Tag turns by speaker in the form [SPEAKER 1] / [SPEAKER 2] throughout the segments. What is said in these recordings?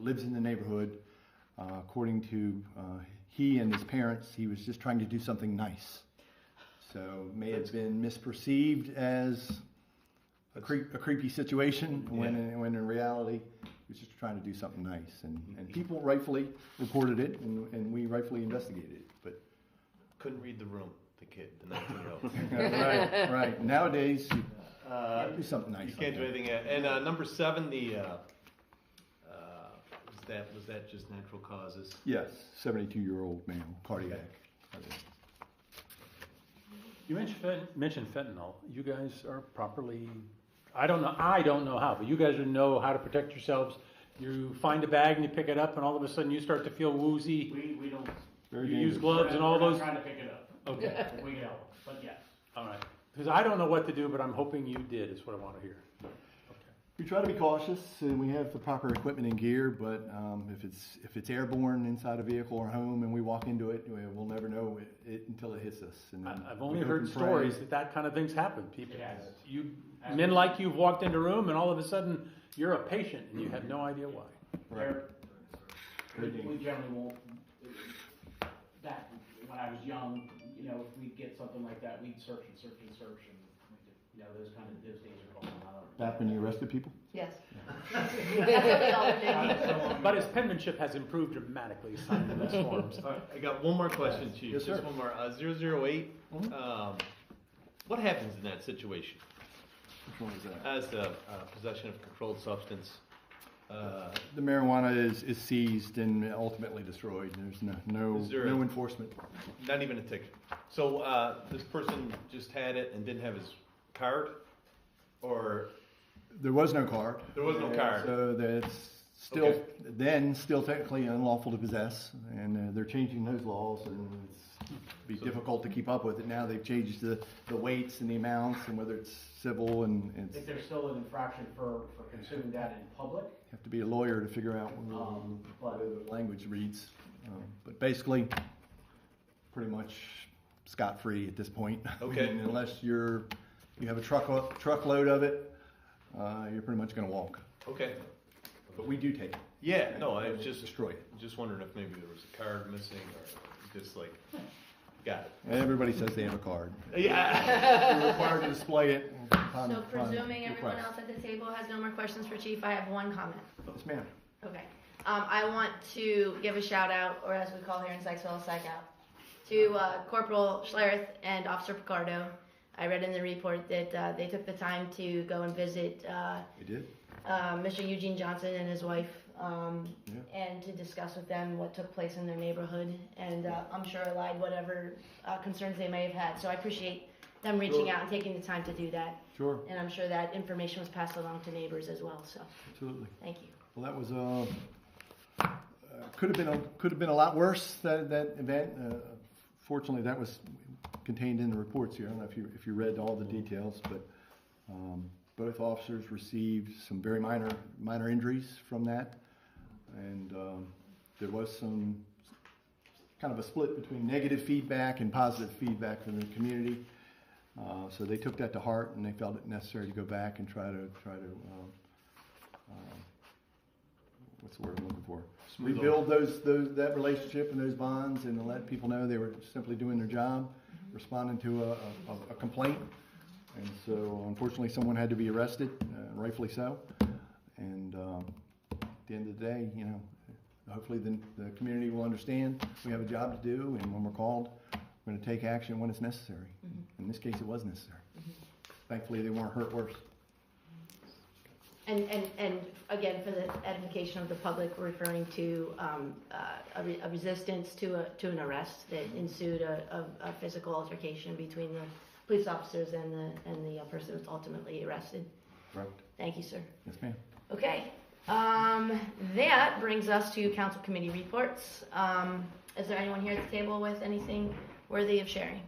[SPEAKER 1] lives in the neighborhood. Uh, according to uh, he and his parents, he was just trying to do something nice. So may have been misperceived as a, creep, a creepy situation when, in, when in reality he was just trying to do something nice. And,
[SPEAKER 2] Mm-hmm.
[SPEAKER 1] and people rightfully reported it, and, and we rightfully investigated it. But
[SPEAKER 2] Couldn't read the room, the kid, the 19 year old.
[SPEAKER 1] right, right. Nowadays, you
[SPEAKER 2] Uh,
[SPEAKER 1] do something nice.
[SPEAKER 2] you can't do
[SPEAKER 1] like
[SPEAKER 2] anything. uh, And uh, number seven, the uh, uh, was that was that just natural causes?
[SPEAKER 1] that. Yes, 72 year old male, cardiac.
[SPEAKER 3] You mentioned fent- mentioned fentanyl. You guys are properly, I don't know, I don't know how, but you guys know how to protect yourselves. You find a bag and you pick it up, and all of a sudden you start to feel woozy.
[SPEAKER 4] We, we don't.
[SPEAKER 1] Very
[SPEAKER 3] You use
[SPEAKER 1] dangerous.
[SPEAKER 3] gloves and all
[SPEAKER 4] we're not
[SPEAKER 3] those.
[SPEAKER 4] Trying to pick it up.
[SPEAKER 3] Okay,
[SPEAKER 4] We get help, but yes.
[SPEAKER 3] all right. Because I don't know what to do, but I'm hoping you did, is what I want to hear.
[SPEAKER 1] We try to be cautious, and we have the proper equipment and gear. But um, if it's if it's airborne inside a vehicle or home, and we walk into it, we- we'll never know it, it until it hits us. And then
[SPEAKER 3] I- I've only
[SPEAKER 1] we
[SPEAKER 3] heard
[SPEAKER 1] hope and pray.
[SPEAKER 3] stories that that kind of thing's happened. People,
[SPEAKER 4] It has.
[SPEAKER 3] you, men like you have walked into a room, and all of a sudden you're a patient, and you have no idea why.
[SPEAKER 1] Right.
[SPEAKER 4] There- We we generally won't, that, when I was young, you know, if we'd get something like that, we'd search and search and search and, you know, those kind of, those days are gone. I don't-
[SPEAKER 1] Back when you arrested people.
[SPEAKER 5] Yes.
[SPEAKER 3] But his penmanship has improved dramatically since this form. so-
[SPEAKER 2] All right, I got one more question, Chief.
[SPEAKER 1] Yes,
[SPEAKER 2] Just
[SPEAKER 1] sir. Mm-hmm.
[SPEAKER 2] one more. Uh, 008, um, what happens in that situation?
[SPEAKER 1] Which one was that?
[SPEAKER 2] As the uh, possession of controlled substance, uh,
[SPEAKER 1] The marijuana is, is seized and ultimately destroyed. There's no no,
[SPEAKER 2] Is there a-
[SPEAKER 1] no enforcement.
[SPEAKER 2] not even a ticket. So uh, this person just had it and didn't have his card, or
[SPEAKER 1] There was no card.
[SPEAKER 2] There was no card.
[SPEAKER 1] So that's still
[SPEAKER 2] Okay.
[SPEAKER 1] then still technically unlawful to possess, and uh, they're changing those laws, and it's be difficult to keep up with it. Now they've changed the, the weights and the amounts, and whether it's civil and it's
[SPEAKER 4] If there's still an infraction for, for consuming that in public,
[SPEAKER 1] have to be a lawyer to figure out what,
[SPEAKER 4] Um, but-
[SPEAKER 1] the language reads. Um, but basically, pretty much scot free at this point.
[SPEAKER 2] Okay.
[SPEAKER 1] And unless you're you have a truck truckload of it, uh, you're pretty much going to walk.
[SPEAKER 2] okay,
[SPEAKER 1] But we do take it.
[SPEAKER 2] yeah, no, I was just
[SPEAKER 1] destroy it.
[SPEAKER 2] just wondering if maybe there was a card missing or just like got
[SPEAKER 1] Everybody says they have a card.
[SPEAKER 2] it. Yeah,
[SPEAKER 1] You're required to display it. upon-
[SPEAKER 5] So
[SPEAKER 1] upon
[SPEAKER 5] presuming everyone
[SPEAKER 1] request.
[SPEAKER 5] else at the table has no more questions for Chief, I have one comment.
[SPEAKER 1] Yes, ma'am.
[SPEAKER 5] Okay. Um, I want to give a shout out, or as we call here in Sykesville, psych out, to uh, Corporal Schlereth and Officer Picardo. I read in the report that uh, they took the time to go and visit uh,
[SPEAKER 1] We did.
[SPEAKER 5] uh, Mr. Eugene Johnson and his wife, um, and to discuss with them what took place in their neighborhood, and uh, I'm sure allied whatever uh, concerns they may have had. So I appreciate them reaching out and taking the time to do that,
[SPEAKER 1] Sure,
[SPEAKER 5] and I'm sure that information was passed along to neighbors as well. So
[SPEAKER 1] absolutely.
[SPEAKER 5] thank you.
[SPEAKER 1] Well, that was uh, uh, could have been a, could have been a lot worse that that event. Uh, fortunately, that was contained in the reports here. I don't know if you if you read all the details, but um, both officers received some very minor minor injuries from that, and um, there was some kind of a split between negative feedback and positive feedback from the community. Uh, so they took that to heart, and they felt it necessary to go back and try to try to um, um, what's the word I'm looking for?
[SPEAKER 2] Smooth
[SPEAKER 1] Rebuild those, those, that relationship and those bonds and to let people know they were simply doing their job, responding to a, a- a complaint. And so unfortunately, someone had to be arrested, uh, rightfully so. And, um, at the end of the day, you know, hopefully the, the community will understand we have a job to do and when we're called, we're gonna take action when it's necessary. In this case, it was necessary. Thankfully, they weren't hurt worse.
[SPEAKER 5] And, and, and again, for the edification of the public, we're referring to um, uh, a re- a resistance to a, to an arrest that ensued a, a a physical altercation between the police officers and the, and the uh, person who was ultimately arrested.
[SPEAKER 1] Correct.
[SPEAKER 5] Thank you, sir.
[SPEAKER 1] Yes, ma'am.
[SPEAKER 5] Okay, um, that brings us to council committee reports. Um, Is there anyone here at the table with anything worthy of sharing?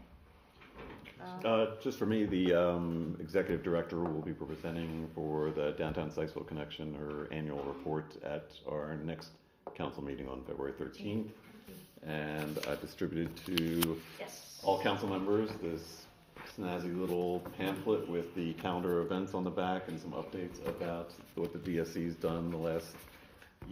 [SPEAKER 6] Uh, Just for me, the um, executive director will be presenting for the Downtown Sykesville Connection, her annual report at our next council meeting on February 13th. And I distributed to
[SPEAKER 5] Yes.
[SPEAKER 6] all council members this snazzy little pamphlet with the calendar events on the back and some updates about what the DSC's done the last